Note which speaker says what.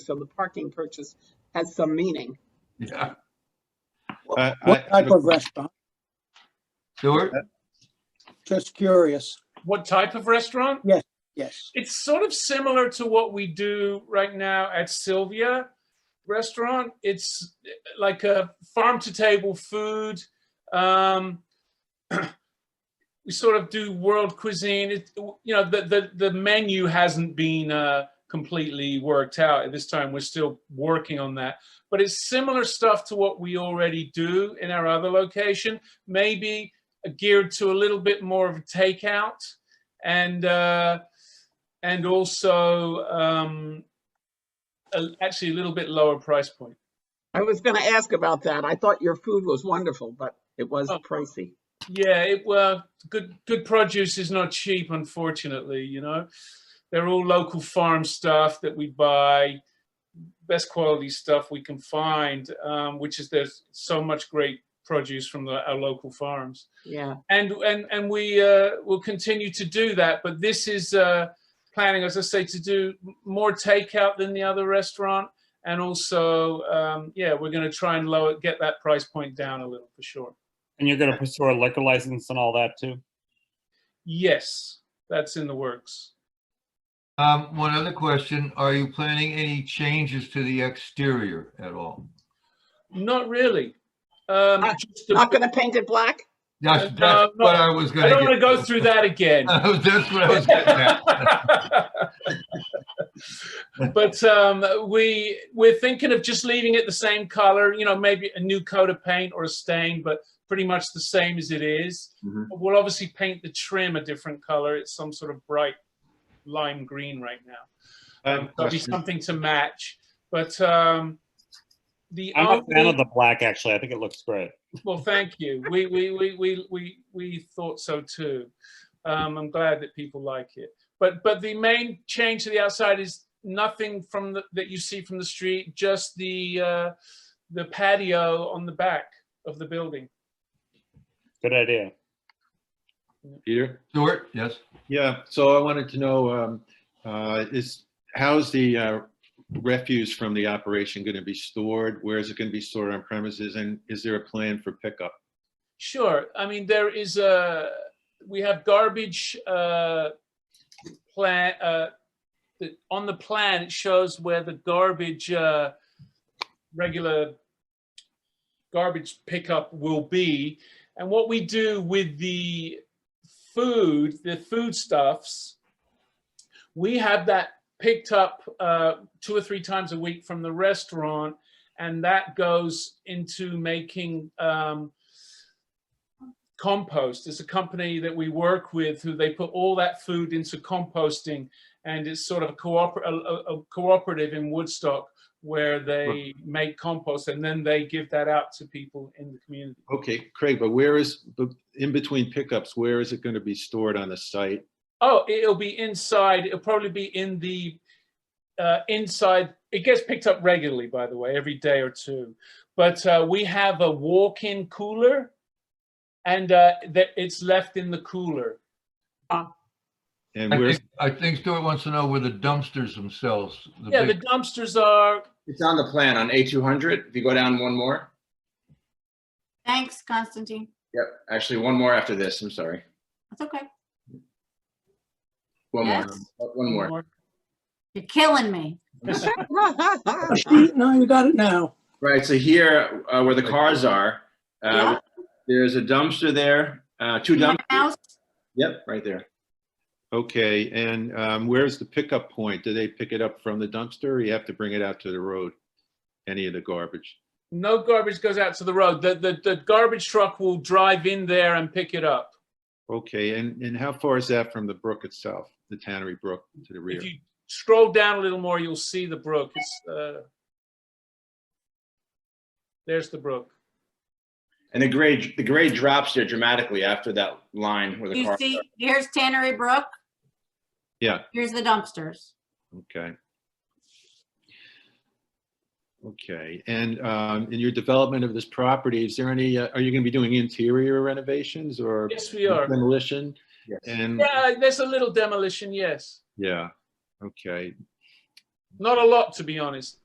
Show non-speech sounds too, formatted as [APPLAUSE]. Speaker 1: So the parking purchase has some meaning.
Speaker 2: Yeah.
Speaker 3: I-
Speaker 4: What
Speaker 3: I-
Speaker 4: type of restaurant?
Speaker 2: Stuart?
Speaker 4: Just curious.
Speaker 5: What type of restaurant?
Speaker 4: Yes.
Speaker 5: It's sort of similar to what we do right now at Sylvia Restaurant. It's like a farm to table food. Um, [CLEARS THROAT] we sort of do world cuisine. It, you know, the, the, the menu hasn't been uh, completely worked out at this time. We're still working on that. But it's similar stuff to what we already do in our other location, maybe geared to a little bit more of a takeout and uh, and also um, a, actually a little bit lower price point.
Speaker 1: I was going to ask about that. I thought your food was wonderful, but it was
Speaker 5: Oh.
Speaker 1: pricey.
Speaker 5: Yeah, it well, good good produce is not cheap, unfortunately. You know, they're all local farm stuff that we buy, best quality stuff we can find, um, which is there's so much great produce from the, our local farms.
Speaker 1: Yeah.
Speaker 5: and and and we uh, will continue to do that. But this is uh, planning, as I say, to do m- more takeout than the other restaurant, and also, um, yeah, we're going to try and lower get that price point down a little for sure.
Speaker 6: And you're gonna pursue a liquor license and all that too?
Speaker 5: Yes, that's in the works.
Speaker 2: Um, one other question, are you planning any changes to the exterior at all?
Speaker 5: Not really. Um,
Speaker 1: Uh,
Speaker 5: just the-
Speaker 1: Not going to paint it black?
Speaker 5: [LAUGHS]
Speaker 1: [LAUGHS]
Speaker 5: Uh,
Speaker 2: That's,
Speaker 5: no,
Speaker 2: that's
Speaker 5: no,
Speaker 2: what I was gonna.
Speaker 5: I don't want to
Speaker 2: get
Speaker 5: go through that
Speaker 2: [LAUGHS]
Speaker 5: again.
Speaker 2: That's what I was getting at.
Speaker 5: but um, we we're thinking of just leaving it the same color. You know, maybe a new coat of paint or a stain, but pretty much the same as it is.
Speaker 2: Mhm.
Speaker 5: But We'll obviously paint the trim a different color. It's some sort of bright lime green right now.
Speaker 3: I
Speaker 5: [LAUGHS]
Speaker 3: have
Speaker 5: Um,
Speaker 3: a
Speaker 5: there'll be
Speaker 3: question.
Speaker 5: something to match. But um, the
Speaker 6: I'm a fan
Speaker 5: only-
Speaker 6: of the black, actually. I think it looks great.
Speaker 5: well, thank you. We we we we we we thought so too. Um, I'm glad that people like it. But but the main change to the outside is nothing from the, that you see from the street. Just the uh, the patio on the back of the building.
Speaker 6: Good idea.
Speaker 3: Peter?
Speaker 2: Stuart, yes?
Speaker 3: Yeah, so I wanted to know, um, uh, is, how's the uh, refuse from the operation going to be stored? Where is it going to be stored on premises? And is there a plan for pickup?
Speaker 5: Sure. I mean, there is a, we have garbage uh plan, uh the- on the plan, it shows where the garbage, uh regular garbage pickup will be. And what we do with the food, the foodstuffs, we have that picked up uh two or three times a week from the restaurant. And that goes into making um compost is a company that we work with who they put all that food into composting and it's sort of a, cooper- a, a- a cooperative in woodstock where they make compost and then they give that out to people in the community
Speaker 3: Okay, Craig, but where is, but in between pickups, where is it going to be stored on the site?
Speaker 5: oh it'll be inside it'll probably be in the uh, inside it gets picked up regularly by the way every day or two but uh, we have a walk-in cooler and uh, that it's left in the cooler
Speaker 3: And
Speaker 2: I
Speaker 3: where's,
Speaker 2: think, I think Stuart wants to know where the dumpsters themselves, the
Speaker 5: yeah the
Speaker 2: big,
Speaker 5: dumpsters are
Speaker 7: It's on the plan on A two hundred. If you go down one more,
Speaker 8: Thanks, Constantine.
Speaker 7: yep, actually one more after this. I'm sorry.
Speaker 8: That's okay.
Speaker 7: One more.
Speaker 8: Yes.
Speaker 7: One more.
Speaker 8: You're killing me.
Speaker 4: Oh, see, No, you got it now.
Speaker 7: Right. So here, uh, where the cars are, uh,
Speaker 8: Yeah.
Speaker 7: there's a dumpster there. Uh, two
Speaker 8: In the
Speaker 7: dumpsters.
Speaker 8: house,
Speaker 7: Yep, right there.
Speaker 3: okay, and um, where's the pickup point? Do they pick it up from the dumpster or you have to bring it out to the road? Any of the garbage?
Speaker 5: No garbage goes out to the road. The, the, the garbage truck will drive in there and pick it up.
Speaker 3: Okay, and, and how far is that from the brook itself, the Tannery Brook to the rear?
Speaker 5: If you scroll down a little more, you'll see the brook. It's, uh, there's the brook.
Speaker 7: And the grade, the grade drops there dramatically after that line where the
Speaker 8: You
Speaker 7: cars
Speaker 8: see,
Speaker 7: are.
Speaker 8: here's Tannery Brook.
Speaker 3: Yeah.
Speaker 8: Here's the dumpsters.
Speaker 3: Okay. Okay, and um, in your development of this property, is there any, uh, are you going to be doing interior renovations or
Speaker 5: Yes, we are.
Speaker 3: demolition?
Speaker 7: Yes.
Speaker 3: And,
Speaker 5: Yeah, there's a little demolition, yes.
Speaker 3: yeah, okay.
Speaker 5: Not a lot, to be honest.